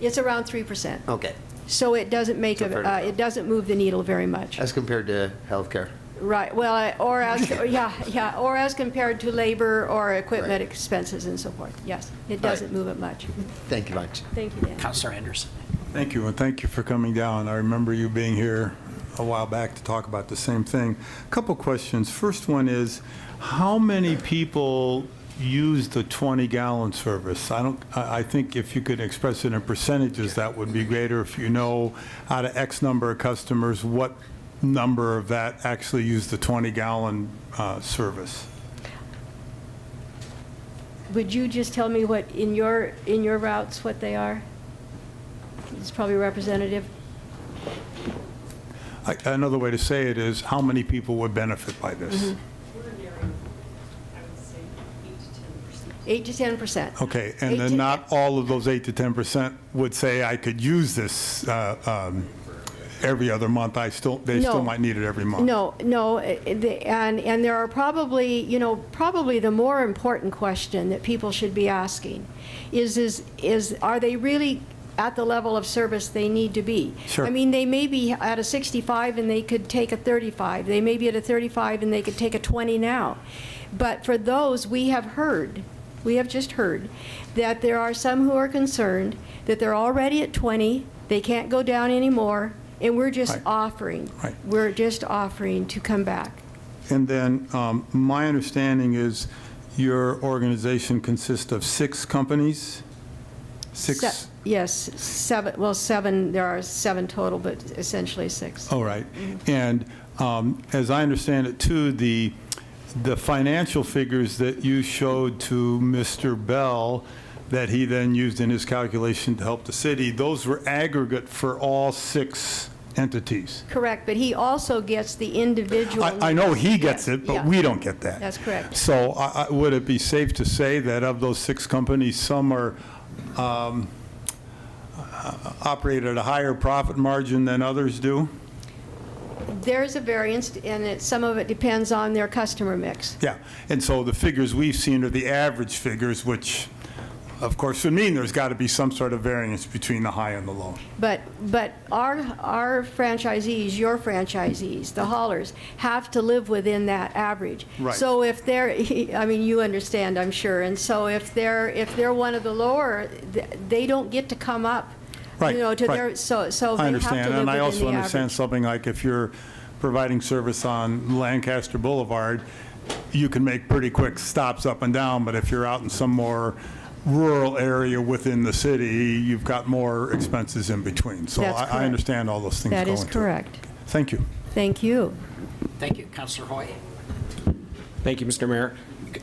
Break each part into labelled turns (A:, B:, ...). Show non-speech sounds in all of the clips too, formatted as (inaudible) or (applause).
A: It's around 3%.
B: Okay,
A: So it doesn't make,
B: So
A: a-
B: fairly
A: uh,
B: low.
A: it doesn't move the needle very much.
B: as compared to healthcare.
A: Right, well, I- or as,
B: (laughs)
A: yeah, yeah, or as compared to labor or equipment
B: Right.
A: expenses and so forth. Yes, it
B: All right.
A: doesn't move it much.
B: Thank you much.
A: Thank you, Dan.
C: Counselor Anderson.
D: Thank you, and thank you for coming down. I remember you being here a while back to talk about the same thing. A Couple questions. First one is, how many people use the 20-gallon service? I don't, I I think if you could express it in percentages, that would be greater. If you know out of X number of customers, what number of that actually use the 20-gallon service?
A: Would you just tell me what, in your, in your routes, what they are? It's probably representative.
D: I- Another way to say it is, how many people would benefit by this?
E: We're nearing, I would say, eight to ten percent.
A: Eight to 10%.
D: Okay,
A: Eight
D: and
A: to-
D: then not all of those 8 to 10% would say, I could use this uh, um, every other month, I still, they
A: No.
D: still might need it every month.
A: No, no, eh, eh, the- and, and there are probably, you know, probably the more important question that people should be asking is, is, is, are they really at the level of service they need to be?
D: Sure.
A: I mean, they may be at a 65 and they could take a 35, they may be at a 35 and they could take a 20 now. But for those, we have heard, we have just heard, that there are some who are concerned that they're already at 20, they can't go down anymore, and we're just
D: Right.
A: offering
D: Right.
A: we're just offering to come back.
D: And then, um, my understanding is your organization consists of six companies?
A: Se-
D: Six,
A: Yes, seven, well, seven, there are seven total, but essentially six.
D: all right. And um, as I understand it, too, the, the financial figures that you showed to Mr. Bell, that he then used in his calculation to help the city, those were aggregate for all six entities.
A: Correct, but he also gets the individual.
D: I, I know he gets
A: Yeah,
D: it, but
A: yeah.
D: we don't get that.
A: That's correct.
D: So I, I, would it be safe to say that of those six companies, some are, um, uh, operate at a higher profit margin than others do?
A: There's a variance, and it, some of it depends on their customer mix.
D: Yeah, and so the figures we've seen are the average figures, which, of course, would mean there's got to be some sort of variance between the high and the low.
A: But, but our, our franchisees, your franchisees, the haulers, have to live within that average.
D: Right.
A: So if they're, (laughs) I mean, you understand, I'm sure, and so if they're, if they're one of the lower, th- they don't get to come up, you
D: Right,
A: know, to their,
D: right.
A: so, so Oh, they
D: I
A: have to live within
D: understand,
A: the
D: and I also understand
A: average.
D: something like if you're providing service on Lancaster Boulevard, you can make pretty quick stops up and down, but if you're out in some more rural area within the city, you've got more expenses in between. So
A: That's
D: I-
A: correct.
D: I understand all those things
A: That
D: going
A: is
D: through.
A: correct.
D: Thank you.
A: Thank you.
C: Thank you, Counselor Hoy.
F: Thank you, Mr. Mayor.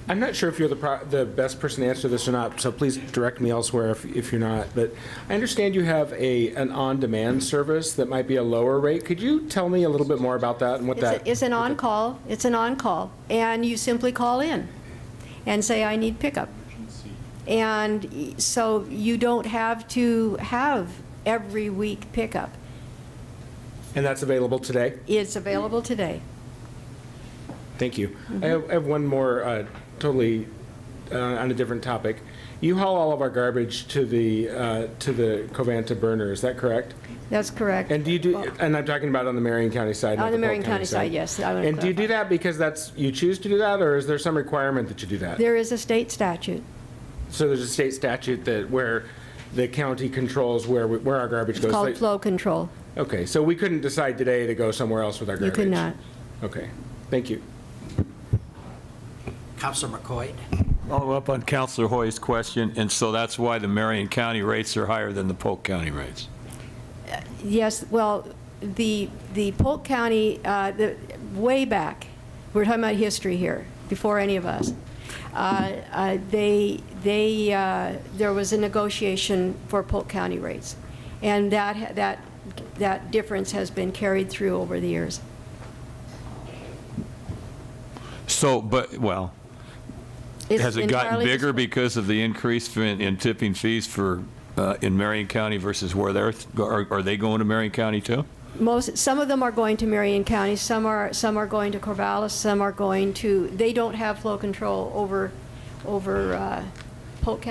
F: I'm not sure if you're the, pro- the best person to answer this or not, so please direct me elsewhere if, if you're not. But I understand you have a, an on-demand service that might be a lower rate. Could you tell me a little bit more about that and what
A: It's a-
F: that?
A: It's an on-call, it's an on-call, and you simply call in and say, I need pickup. And y- so you don't have to have every week pickup.
F: And that's available today?
A: It's available today.
F: Thank you. I have, I have one more, uh, totally uh, on a different topic. You haul all of our garbage to the, uh, to the Covanta burner, is that correct?
A: That's correct.
F: And do you do, and I'm talking about on the Marion County side, not
A: On
F: the
A: the
F: Polk
A: Marion County side, yes. I wanna
F: And do you do
A: clarify.
F: that because that's, you choose to do that, or is there some requirement that you do that?
A: There is a state statute.
F: So there's a state statute that, where the county controls where, we- where our garbage goes?
A: It's called
F: Like-
A: flow control.
F: Okay, so we couldn't decide today to go somewhere else with our
A: You
F: garbage?
A: could not.
F: Okay, thank you.
C: Counselor McCoy.
G: Follow up on Counselor Hoy's question, and so that's why the Marion County rates are higher than the Polk County rates.
A: Yes, well, the, the Polk County, uh, the, way back, we're talking about history here, before any of us. Uh, uh, They, they, uh, there was a negotiation for Polk County rates, and that, ha- that, that difference has been carried through over the years.
G: So, but, well,
A: It's
G: has it gotten
A: entirely
G: bigger
A: dis-
G: because of the increase in in tipping fees for, uh, in Marion County versus where they're, are are they going to Marion County too?
A: Most, some of them are going to Marion County, some are, some are going to Corvallis, some are going to, they don't have flow control over, over uh, Polk County